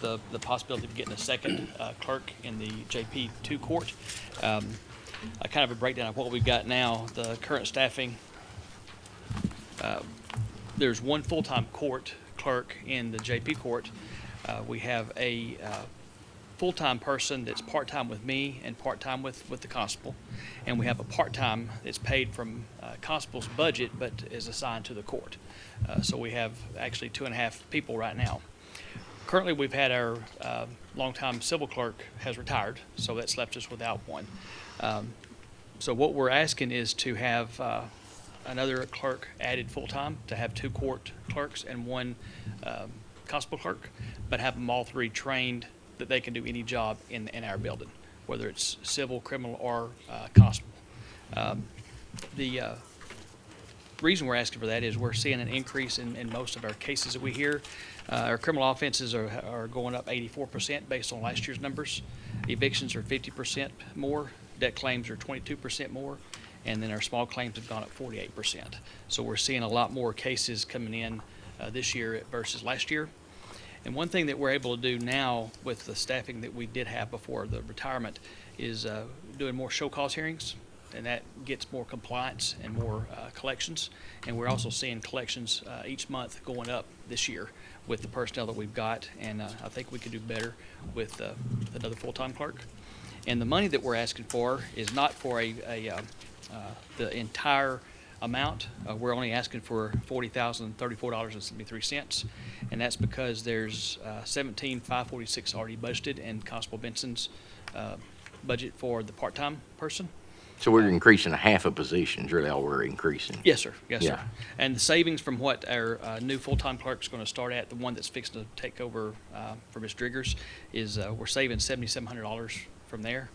the, the possibility of getting a second uh, clerk in the JP two court. Um, I kind of a breakdown of what we've got now, the current staffing. Uh, There's one full-time court clerk in the JP court. Uh, We have a uh, full-time person that's part-time with me and part-time with, with the constable. And we have a part-time that's paid from uh, constable's budget but is assigned to the court. Uh, So we have actually two and a half people right now. Currently, we've had our uh, longtime civil clerk has retired, so that's left us without one. Um, So what we're asking is to have uh, another clerk added full-time, to have two court clerks and one um, constable clerk, but have them all three trained that they can do any job in, in our building, whether it's civil, criminal, or uh, constable. Um, The uh, reason we're asking for that is we're seeing an increase in, in most of our cases that we hear. Uh, our criminal offenses are, are going up eighty-four percent based on last year's numbers. Evictions are fifty percent more, debt claims are twenty-two percent more, and then our small claims have gone up forty-eight percent. So we're seeing a lot more cases coming in, uh, this year versus last year. And one thing that we're able to do now with the staffing that we did have before the retirement is uh, doing more show cause hearings, and that gets more compliance and more uh, collections. And we're also seeing collections uh, each month going up this year with the personnel that we've got, and uh, I think we could do better with uh, another full-time clerk. And the money that we're asking for is not for a, a, uh, uh, the entire amount. Uh, We're only asking for forty thousand, thirty-four dollars and seventy-three cents. And that's because there's uh, seventeen, five forty-six already budgeted in Constable Benson's uh, budget for the part-time person. So we're increasing a half a position, is really all we're increasing. Yes, sir. Yes, sir. Yeah. And the savings from what our uh, new full-time clerk's going to start at, the one that's fixed to take over uh, for Ms. Driggers, is uh, we're saving seventy-seven hundred dollars from there.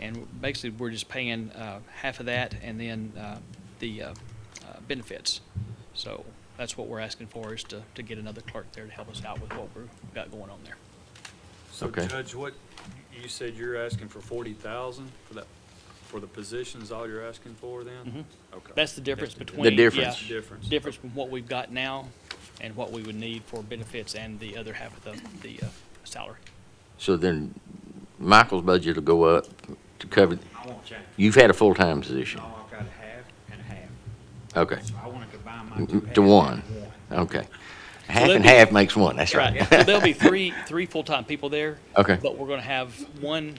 And basically, we're just paying uh, half of that and then uh, the uh, uh, benefits. So that's what we're asking for, is to, to get another clerk there to help us out with what we've got going on there. So Okay. Judge, what, you said you're asking for forty thousand for that, for the positions, all you're asking for then? Okay. Mm-hmm. That's the difference That's between. yeah, difference. The difference. Difference from what we've got now and what we would need for benefits and the other half of the, the uh, salary. So then Michael's budget will go up to cover, I want change. you've had a full-time position. No, I've got a half and a half. Okay, So I want to combine my two Mm, halves. to one. into Okay. Half let and me- half makes one, that's That's right. right. So there'll be three, three full-time people there. Okay. But we're gonna have one,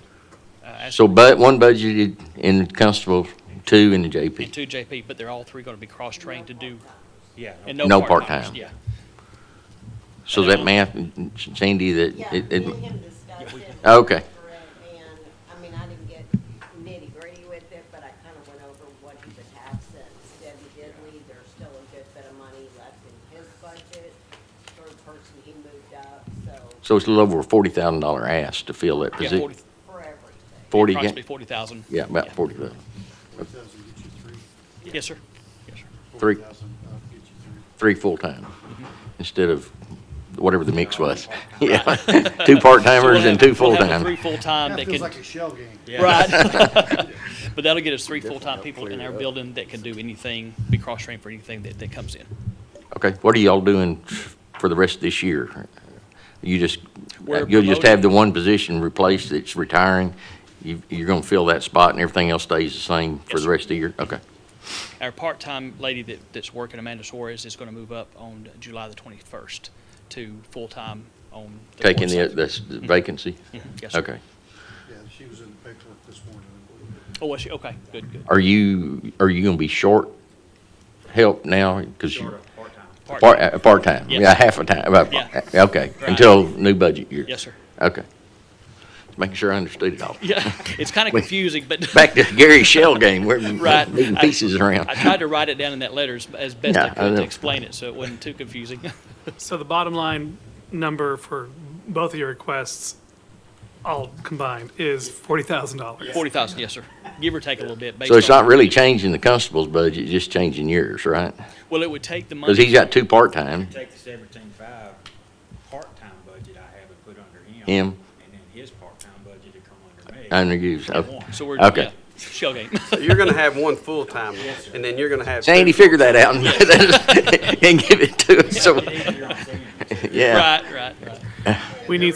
uh, as- So but, one budgeted in constable, two in the and JP. two JP, but they're all three gonna be cross-trained to do, Yeah. and no No part-timers. part-time. Yeah. So that math, Sandy, that, Yeah, it, me and it, him discussed it. Okay. And, I mean, I didn't get nitty gritty with it, but I kind of went over what he would have since Debbie did leave. There's still a good bit of money left in his budget for the person he moved up, so so it's a little over a forty thousand dollar ask to fill that Yeah, position. 40 for everything. Forty, ga- Approximately forty thousand. yeah, about forty thousand. Yes, sir. Yes, sir. Three. three full-time Mm-hmm. instead of whatever the mix was. Yeah, two So we'll part-timers and have- two we'll have the Three full-time. full-time that That feels like can, a shell game. right. But that'll get us three full-time people in our building that can do anything, be cross-trained for anything that, that comes in. Okay, what are y'all doing for the rest of this year? You just, We're you'll just have the one position replaced that's retiring. You, you're gonna fill that spot and everything else stays the same for Yes, the sir. rest of the year? Okay, Our part-time lady that, that's working, Amanda Suarez, is gonna move up on July the twenty-first to full-time on. the taking the, fourth. that's the vacancy? Yes, sir. Okay. Yeah, she was in the paperwork this morning. I believe. Oh, was she? Okay, good, good. Are you, are you gonna be short help now? Cause you, Short of part-time. part, uh, part-time, Yeah. yeah, half a time, about, Yeah. okay, Right. until new budget year? Yes, sir. Okay. Just Making sure I understood it all. Yeah, it's kind of Wait. confusing, but Back to Gary Shell game, we're Right. moving pieces around. I tried to write it down in that letter as, as best I Yeah, I could know. to explain it so it wasn't too confusing. So the bottom line number for both of your requests, all combined, is forty thousand dollars. Forty thousand, yes, sir. Give or take a little bit. Based So it's on- not really changing the constable's budget, just changing yours, right? Well, it would take the money. Because he's got two part-time, Take the seventeen-five part-time budget I have and put under him. Him. And then his part-time budget to come under me. under you, so. One. So we're Okay. yeah, shell game. So you're gonna have one full-time, and then you're gonna have. Sandy, two figure that out and give it to us, so, Easier on Sandy. yeah. right, right, right. We need